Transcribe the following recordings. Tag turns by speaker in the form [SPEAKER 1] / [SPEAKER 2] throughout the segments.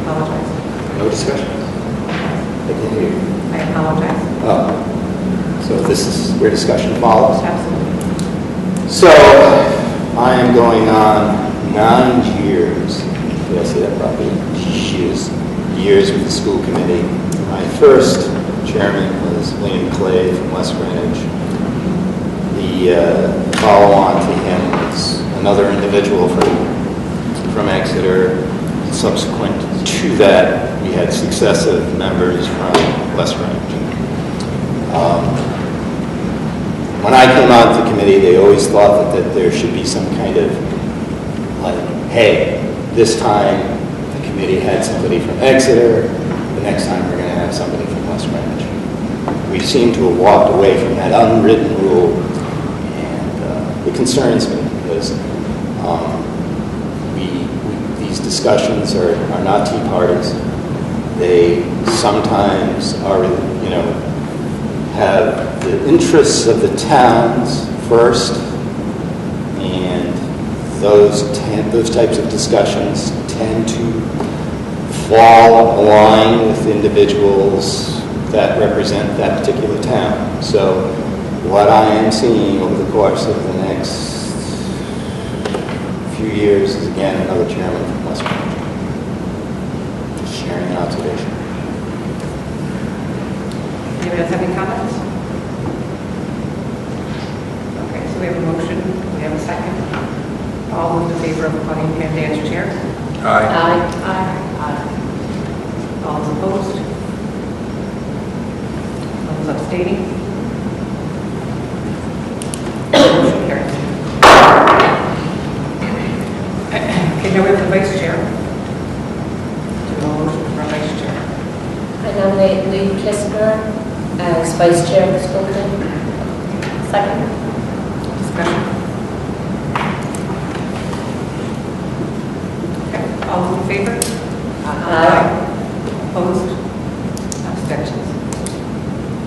[SPEAKER 1] apologize.
[SPEAKER 2] No discussion? I can hear you.
[SPEAKER 1] I apologize.
[SPEAKER 2] Oh, so this is where discussion follows.
[SPEAKER 1] Absolutely.
[SPEAKER 2] So I am going on nine years, did I say that properly? Years, years with the school committee. My first chairman was William Clay from West Greenwich. The uh, follow-on to him was another individual from, from Exeter. Subsequent to that, we had successive members from West Greenwich. Um, when I came on to committee, they always thought that, that there should be some kind of, like, hey, this time the committee had somebody from Exeter, the next time we're gonna have somebody from West Greenwich. We seem to have walked away from that unwritten rule, and uh, it concerns me, because um, we, we- these discussions are, are not tea parties. They sometimes are, you know, have the interests of the towns first, and those, ten- those types of discussions tend to fall in line with individuals that represent that particular town. So what I am seeing over the course of the next few years is again another chairman from West Point. Just sharing an observation.
[SPEAKER 1] Anyone else have any comments? Okay, so we have a motion, we have a second. All those in favor of appointing Pam Day as chair?
[SPEAKER 3] Aye.
[SPEAKER 1] Aye. Aye. All those opposed? All those abstaining? Motion carries. Okay, now we have the vice chair. Do a motion for our vice chair.
[SPEAKER 4] I nominate Lee Kissinger as vice chair of the school committee. Second.
[SPEAKER 1] Discussion? Okay, all those in favor?
[SPEAKER 4] Aye.
[SPEAKER 1] Opposed? Abstentions?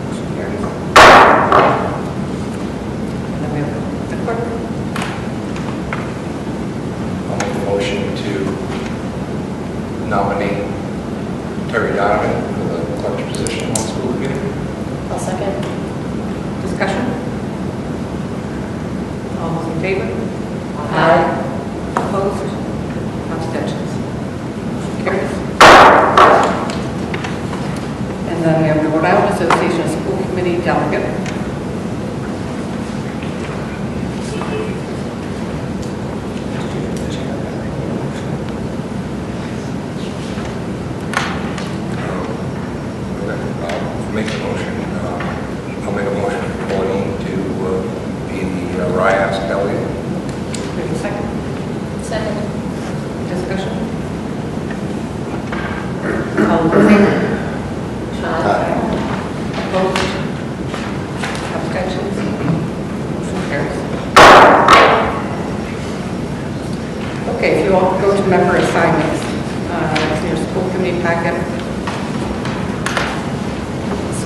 [SPEAKER 1] Motion carries. And then we have the clerk.
[SPEAKER 3] I'll make a motion to nominate Terry Donovan for the collector position on school committee.
[SPEAKER 4] I'll second.
[SPEAKER 1] Discussion? All those in favor?
[SPEAKER 4] Aye.
[SPEAKER 1] Opposed? Abstentions? Motion carries. And then we have the Rhode Island Association of School Committee Delegate.
[SPEAKER 3] I'll make a motion, uh, I'll make a motion for Pauline to uh, be the uh, RIAS delegate.
[SPEAKER 1] We have a second
[SPEAKER 4] Second.
[SPEAKER 1] discussion. All in favor?
[SPEAKER 4] Aye.
[SPEAKER 1] Opposed? Abstentions? Motion carries. Okay, if you all go to member assignments, uh, it's in your school committee packet.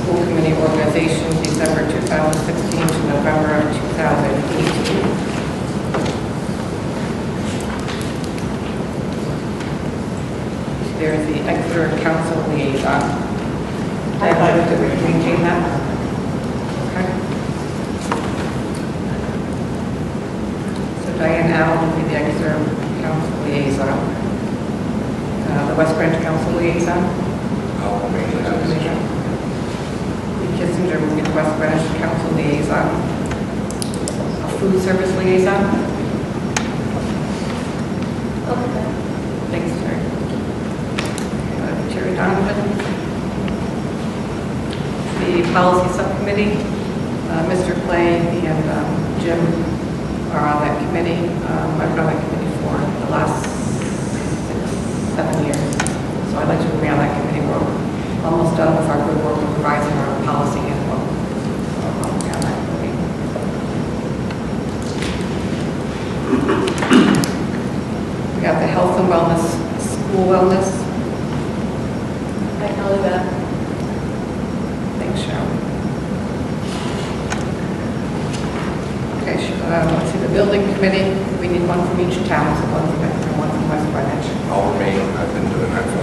[SPEAKER 1] School committee organization, December 2016 to November of 2018. There's the Exeter Council liaison. I'd like to maintain that. Okay. So Diane Allen will be the Exeter Council liaison. Uh, The West Branch Council liaison.
[SPEAKER 3] I'll make that decision.
[SPEAKER 1] Lee Kissinger will be the West Branch Council liaison. A Food service liaison.
[SPEAKER 4] Okay.
[SPEAKER 1] Thanks, Terry. Uh, Terry Donovan. The policy subcommittee, uh, Mr. Clay and um, Jim are on that committee. Um, I've been on that committee for the last six, seven years. So I'd like to be on that committee. We're almost done with our good work of revising our policy handbook. So I'll be on that committee. We got the health and wellness, school wellness,
[SPEAKER 4] I can leave that.
[SPEAKER 1] Thanks, Cheryl. Okay, sh- uh, let's see, the building committee, we need one from each town, so one from, Exeter, one from West Greenwich.
[SPEAKER 3] I'll remain, I've been doing that for